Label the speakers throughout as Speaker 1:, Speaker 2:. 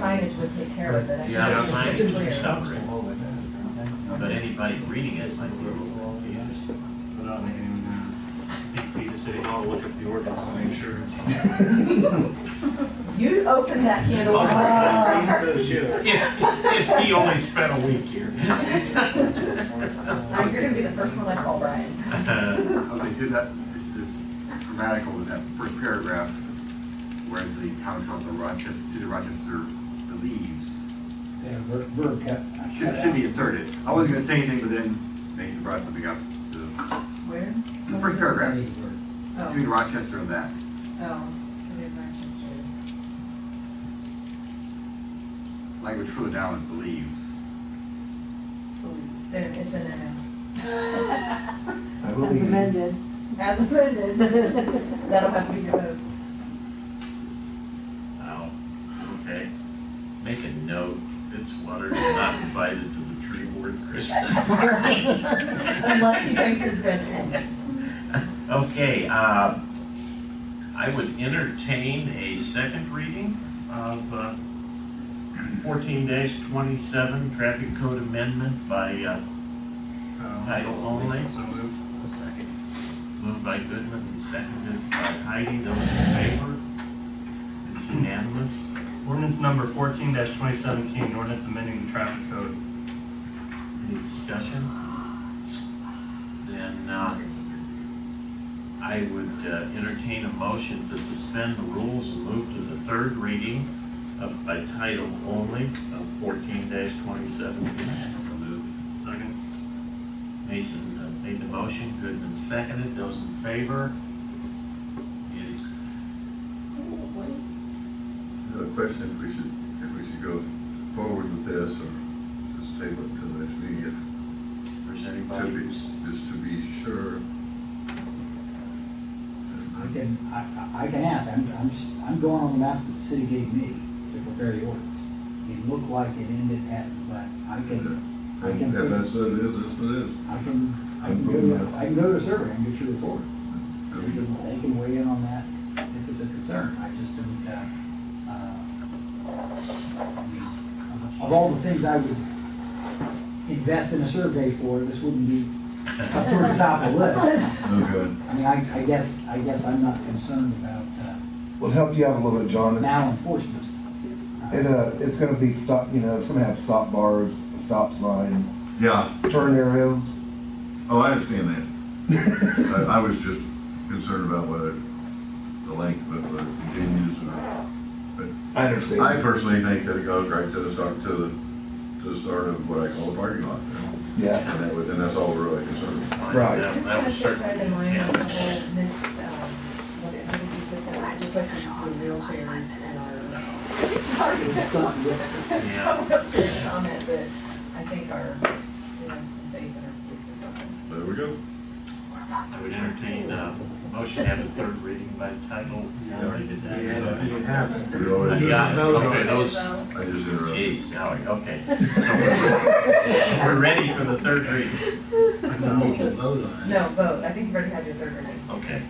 Speaker 1: Signage would take care of it. I think
Speaker 2: Yeah,
Speaker 1: it's
Speaker 2: signage and
Speaker 1: clear.
Speaker 2: stuff. But anybody reading it might be confused.
Speaker 3: Without making any uh, big feet of city hall, look at the ordinance and make sure.
Speaker 1: You opened that can of worms.
Speaker 2: If, if he only spent a week here. Oh,
Speaker 1: Uh, You're gonna be the first one I call Brian.
Speaker 2: Uh,
Speaker 4: Okay, so that, this is grammatical, was that first paragraph, where the town council of Rochester, city of Rochester believes,
Speaker 5: Yeah, ver- verb cut.
Speaker 4: should, should be inserted. I wasn't gonna say anything, but then Mason brought something up, so,
Speaker 1: Where?
Speaker 4: the first paragraph,
Speaker 5: Any verb.
Speaker 4: between
Speaker 1: Oh,
Speaker 4: Rochester and that.
Speaker 1: oh, City of Rochester.
Speaker 4: Language further down is believes.
Speaker 1: There, it's in there now.
Speaker 5: I
Speaker 6: As
Speaker 5: believe it.
Speaker 6: amended.
Speaker 1: As amended. That'll have to be your vote.
Speaker 2: Wow, okay. Make a note, Fitzwater is not invited to the tree board Christmas party.
Speaker 1: Unless he thinks it's been.
Speaker 2: Okay, uh, I would entertain a second reading of uh, fourteen twenty-seven traffic code amendment by, uh, Title only.
Speaker 3: Oh. So moved.
Speaker 4: A second.
Speaker 2: moved by Goodman and seconded by Heidi. Those in favor? It's unanimous.
Speaker 3: Ordinance number fourteen twenty seventeen, ordinance amending the traffic code.
Speaker 2: Any discussion? Then, uh, I would uh, entertain a motion to suspend the rules and move to the third reading of, by title only of fourteen twenty-seven.
Speaker 4: So moved.
Speaker 3: Second.
Speaker 2: Mason uh, made the motion, Goodman seconded, those in favor? It is
Speaker 7: Another question, if we should, if we should go forward with this or just table it till the next meeting, if,
Speaker 2: There's
Speaker 7: to
Speaker 2: anybody
Speaker 7: be,
Speaker 2: who's,
Speaker 7: just to be sure.
Speaker 5: I can, I, I- I can ask, I'm, I'm, s- I'm going on the map that the city gave me to prepare the ordinance. It looked like it ended at, but I can, I
Speaker 7: And
Speaker 5: can,
Speaker 7: if
Speaker 5: I
Speaker 7: that's what it is, that's what it is.
Speaker 5: can, I can go to, I can go to survey and get your report.
Speaker 7: I
Speaker 5: They
Speaker 7: mean,
Speaker 5: can, they can weigh in on that if it's a concern, I just don't, uh, uh, I mean, of all the things I would invest in a survey for, this wouldn't be up towards the top of the list.
Speaker 7: No good.
Speaker 5: I mean, I, I guess, I guess I'm not concerned about, uh,
Speaker 8: will help you out a little bit, John. It's-
Speaker 5: malenforcement.
Speaker 8: It, uh, it's gonna be stop, you know, it's gonna have stop bars, stop sign,
Speaker 7: Yeah,
Speaker 8: turn arrows.
Speaker 7: oh, I understand that. I, I was just concerned about whether the length of it continues or,
Speaker 8: I
Speaker 7: I
Speaker 8: understand.
Speaker 7: personally think that it goes right to the start, to the, to the start of what I call the parking lot.
Speaker 8: Yeah,
Speaker 7: And that would, and that's all we're really concerned about.
Speaker 8: Right.
Speaker 2: that-
Speaker 1: This
Speaker 2: that
Speaker 1: kind of
Speaker 2: was
Speaker 1: fits right
Speaker 2: certainly
Speaker 1: in line with the
Speaker 2: intent.
Speaker 1: whole, this, um, what it, how did you put that? It's just like the wheelchairs and our.
Speaker 5: It's something that-
Speaker 1: It's
Speaker 2: Yeah.
Speaker 1: so much to comment, but I think our, you know, some faith in our police department.
Speaker 7: There we go.
Speaker 2: I would entertain a motion to have a third reading by title. We already did that.
Speaker 7: We already did.
Speaker 2: Yeah, okay, those,
Speaker 7: I just interrupted.
Speaker 2: geez, Howie, okay. So We're we're ready for the third reading.
Speaker 1: No, vote, I think you've already had your third reading.
Speaker 2: Okay.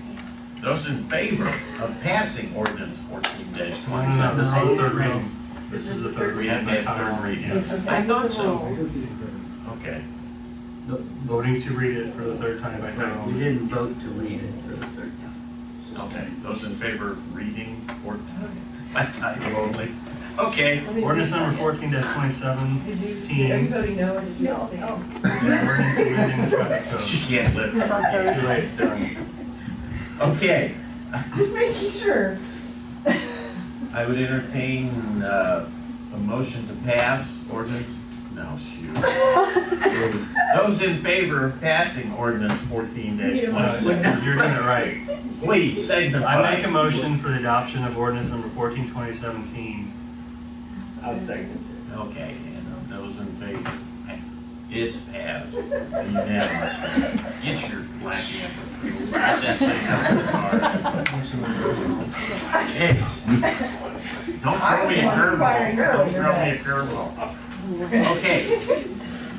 Speaker 2: Those in favor of passing ordinance fourteen dash
Speaker 3: No,
Speaker 2: twenty-seven,
Speaker 3: this is
Speaker 2: say
Speaker 3: the third reading. This is the third
Speaker 2: We have
Speaker 3: reading.
Speaker 2: to have third reading.
Speaker 6: It's a
Speaker 2: I
Speaker 6: second
Speaker 2: thought so.
Speaker 6: rule.
Speaker 2: Okay,
Speaker 3: Voting to read it for the third time by title
Speaker 9: We
Speaker 3: only.
Speaker 9: didn't vote to read it for the third time.
Speaker 2: okay. Those in favor of reading or by title only? Okay.
Speaker 3: Ordinance number fourteen twenty-seven,
Speaker 1: Did you,
Speaker 3: Team.
Speaker 1: are you voting no or did you abstain?
Speaker 3: an ordinance amending the traffic
Speaker 2: She
Speaker 3: code.
Speaker 2: can't live.
Speaker 6: It's on third.
Speaker 3: Too late, it's done.
Speaker 2: Okay,
Speaker 1: Just making sure.
Speaker 2: I would entertain, uh, a motion to pass ordinance, no, shoot. Those in favor of passing ordinance fourteen dash
Speaker 3: Uh, You're doing it right.
Speaker 2: please signify.
Speaker 3: I make a motion for the adoption of ordinance number fourteen twenty seventeen.
Speaker 9: I'll second
Speaker 2: Okay, and those in favor, it's passed, unanimous. Get your black apron. Wrap that thing up in the car. Jeez. Don't throw me a curveball, don't throw me a curveball. Okay,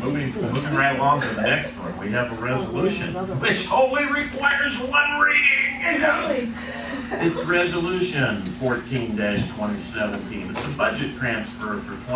Speaker 2: moving, moving right along to the next one, we have a resolution, which only requires one reading.
Speaker 1: Exactly.
Speaker 2: It's resolution fourteen twenty seventeen. It's a budget transfer for twenty